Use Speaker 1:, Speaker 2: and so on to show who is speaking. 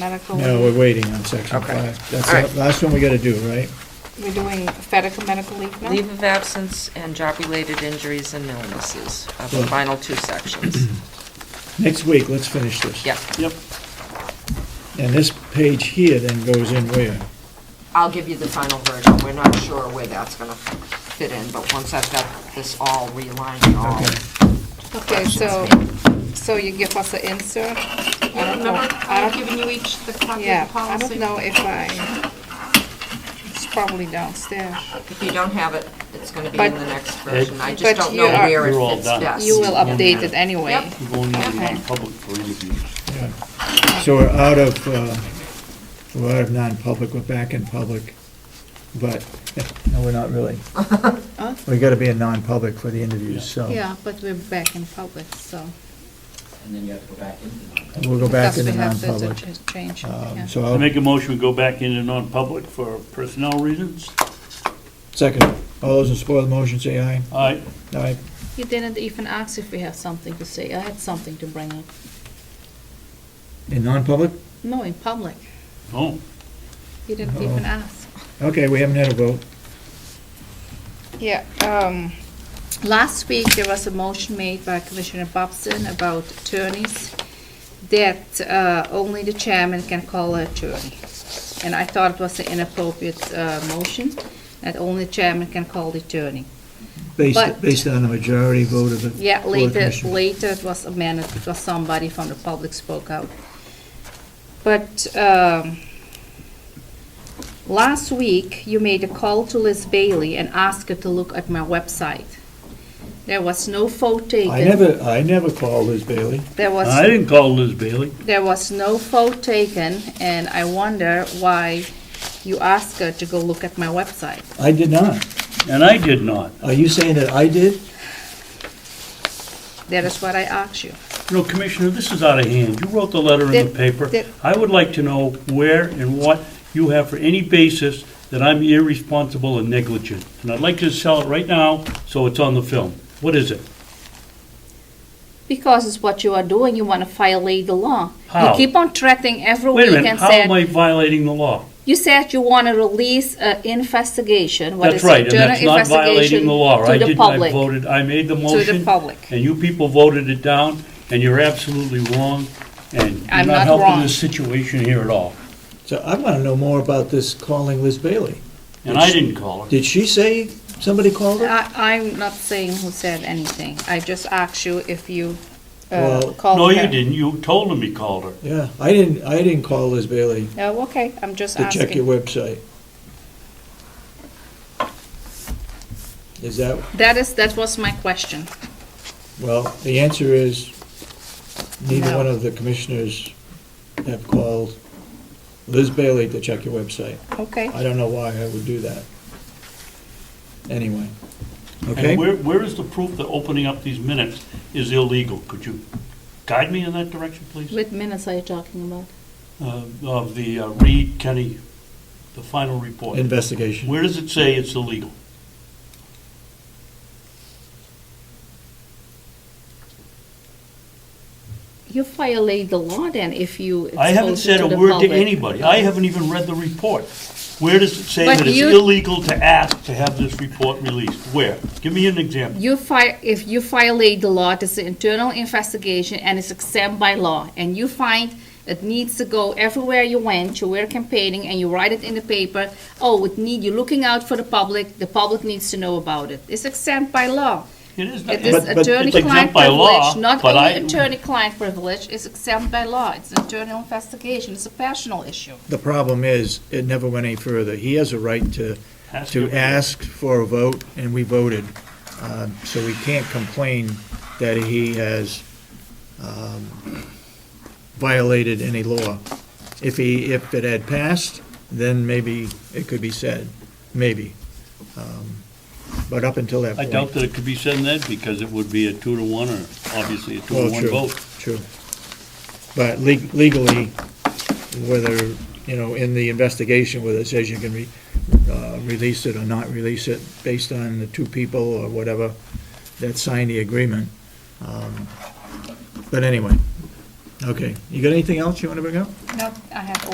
Speaker 1: medical.
Speaker 2: No, we're waiting on section
Speaker 3: Oh. Okay.
Speaker 2: five.
Speaker 3: All right.
Speaker 2: That's the last one we gotta do, right?
Speaker 1: We're doing Fedica medical leave now?
Speaker 3: Leave of absence and job-related injuries and illnesses are the final two sections.
Speaker 1: Mm-hmm.
Speaker 2: Next week, let's finish this.
Speaker 3: Yeah,
Speaker 4: Yep.
Speaker 2: And this page here then goes in where?
Speaker 3: I'll give you the final version. We're not sure where that's gonna fit in, but once I've got this all realigned and all.
Speaker 2: Okay.
Speaker 1: Okay, so, so you give us an insert? I don't know.
Speaker 5: Remember, I
Speaker 1: I
Speaker 5: have
Speaker 1: don't-
Speaker 5: given you each the copy
Speaker 1: Yeah,
Speaker 5: of the
Speaker 1: I don't
Speaker 5: policy.
Speaker 1: know if I, it's probably downstairs.
Speaker 3: If you don't have it, it's gonna be
Speaker 1: But-
Speaker 3: in the next version. I
Speaker 1: But
Speaker 3: just don't
Speaker 1: you
Speaker 3: know
Speaker 1: are-
Speaker 3: where
Speaker 4: We're all
Speaker 3: it fits
Speaker 4: done.
Speaker 3: best.
Speaker 1: You will
Speaker 4: Yes.
Speaker 1: update it anyway.
Speaker 5: Yep.
Speaker 4: We're going into
Speaker 1: Okay.
Speaker 4: non-public for interviews.
Speaker 2: Yeah. So we're out of, uh, we're out of non-public, we're back in public, but, no, we're not really. We gotta be in non-public for the interviews, so.
Speaker 1: Yeah, but we're back in public, so.
Speaker 6: and then you have to go back into non
Speaker 2: We'll go back into
Speaker 1: because we have the-
Speaker 2: non-public.
Speaker 1: the ch- Change, yeah.
Speaker 2: Um, So
Speaker 4: I
Speaker 2: I'll,
Speaker 4: make a motion, we go back into non-public for personnel reasons.
Speaker 2: second, all those in support of the motion, say aye.
Speaker 4: All right,
Speaker 2: Aye.
Speaker 1: You didn't even ask if we have something to say. I had something to bring up.
Speaker 2: In non-public?
Speaker 1: No, in public.
Speaker 4: oh,
Speaker 1: You didn't
Speaker 2: Oh.
Speaker 1: even ask.
Speaker 2: Okay, we haven't had a vote.
Speaker 1: Yeah, um, last week, there was a motion made by Commissioner Bobson about attorneys, that uh, only the chairman can call an attorney. And I thought it was an inappropriate uh, motion, that only chairman can call the attorney.
Speaker 2: Based,
Speaker 1: But-
Speaker 2: based on a majority vote of the.
Speaker 1: Yeah,
Speaker 2: Board of
Speaker 1: later,
Speaker 2: Commissioners.
Speaker 1: later it was amended because somebody from the public spoke out. But um, last week, you made a call to Liz Bailey and asked her to look at my website. There was no photo taken.
Speaker 2: I never, I never called Liz Bailey.
Speaker 1: There was.
Speaker 4: I didn't call Liz Bailey.
Speaker 1: There was no vote taken, and I wonder why you asked her to go look at my website.
Speaker 2: I did not.
Speaker 4: And I did not.
Speaker 2: Are you saying that I did?
Speaker 1: That is what I asked you.
Speaker 4: You know, Commissioner, this is out of hand. You wrote the letter in the
Speaker 1: That-
Speaker 4: paper.
Speaker 1: that-
Speaker 4: I would like to know where and what you have for any basis that I'm irresponsible and negligent. And I'd like to sell it right now, so it's on the film. What is it?
Speaker 1: Because it's what you are doing, you want to violate the law.
Speaker 4: How?
Speaker 1: You keep on threatening every
Speaker 4: Wait a
Speaker 1: week
Speaker 4: minute,
Speaker 1: and
Speaker 4: how am
Speaker 1: said,
Speaker 4: I violating the law?
Speaker 1: you said you want to release an investigation, what
Speaker 4: That's
Speaker 1: is
Speaker 4: right,
Speaker 1: it,
Speaker 4: and
Speaker 1: internal
Speaker 4: that's not violating
Speaker 1: investigation
Speaker 4: the law. I
Speaker 1: to the
Speaker 4: didn't, I
Speaker 1: public.
Speaker 4: voted, I made the
Speaker 1: To
Speaker 4: motion.
Speaker 1: the public.
Speaker 4: And you people voted it down, and you're absolutely wrong, and you're
Speaker 1: I'm
Speaker 4: not
Speaker 1: not
Speaker 4: helping
Speaker 1: wrong.
Speaker 4: the situation here at all.
Speaker 2: So I want to know more about this calling Liz Bailey.
Speaker 4: And I didn't call her.
Speaker 2: Did she say somebody called her?
Speaker 1: I, I'm not saying who said anything. I just asked you if you uh,
Speaker 2: Well,
Speaker 1: called
Speaker 4: No,
Speaker 1: her.
Speaker 4: you didn't, you told him you called her.
Speaker 2: Yeah, I didn't, I didn't call Liz Bailey
Speaker 1: Oh, okay, I'm just
Speaker 2: to check your
Speaker 1: asking.
Speaker 2: website. Is that,
Speaker 1: That is, that was my question.
Speaker 2: well, the answer is neither
Speaker 1: No.
Speaker 2: one of the commissioners have called Liz Bailey to check your website.
Speaker 1: Okay.
Speaker 2: I don't know why I would do that. Anyway, okay?
Speaker 4: And where, where is the proof that opening up these minutes is illegal? Could you guide me in that direction, please?
Speaker 1: What minutes are you talking about?
Speaker 4: Uh, Of the uh, Reed Kenny, the final report.
Speaker 2: Investigation.
Speaker 4: Where does it say it's illegal?
Speaker 1: You violate the law then if you.
Speaker 4: I haven't
Speaker 1: expose it
Speaker 4: said a
Speaker 1: the
Speaker 4: word to
Speaker 1: public.
Speaker 4: anybody. I haven't even read the report. Where does it say
Speaker 1: But
Speaker 4: that it's
Speaker 1: you-
Speaker 4: illegal to ask to have this report released? Where? Give me an example.
Speaker 1: You fi, if you violate the law, it's an internal investigation and it's exempt by law. And you find it needs to go everywhere you went, you were campaigning and you write it in the paper. Oh, it need, you're looking out for the public, the public needs to know about it. It's exempt by law.
Speaker 4: It is not.
Speaker 1: It is
Speaker 2: but- but-
Speaker 4: It's exempt
Speaker 1: attorney-client
Speaker 4: by law,
Speaker 1: privilege, not
Speaker 4: but I-
Speaker 1: only attorney-client privilege, it's exempt by law. It's internal investigation, it's a personal issue.
Speaker 2: The problem is, it never went any further. He has a right to,
Speaker 4: Ask
Speaker 2: to
Speaker 4: it.
Speaker 2: ask for a vote, and we voted. Um, So we can't complain that he has um, violated any law. If he, if it had passed, then maybe it could be said, maybe. Um, But up until that
Speaker 4: I
Speaker 2: point.
Speaker 4: doubt that it could be said in that because it would be a two to one or obviously a two
Speaker 2: Well,
Speaker 4: to one
Speaker 2: Oh, true,
Speaker 4: vote.
Speaker 2: True. But leg- legally, whether, you know, in the investigation, whether it says you can re- uh, release it or not release it, based on the two people or whatever that signed the agreement. Um, But anyway, Okay, you got anything else you want to bring up?
Speaker 1: Nope, I have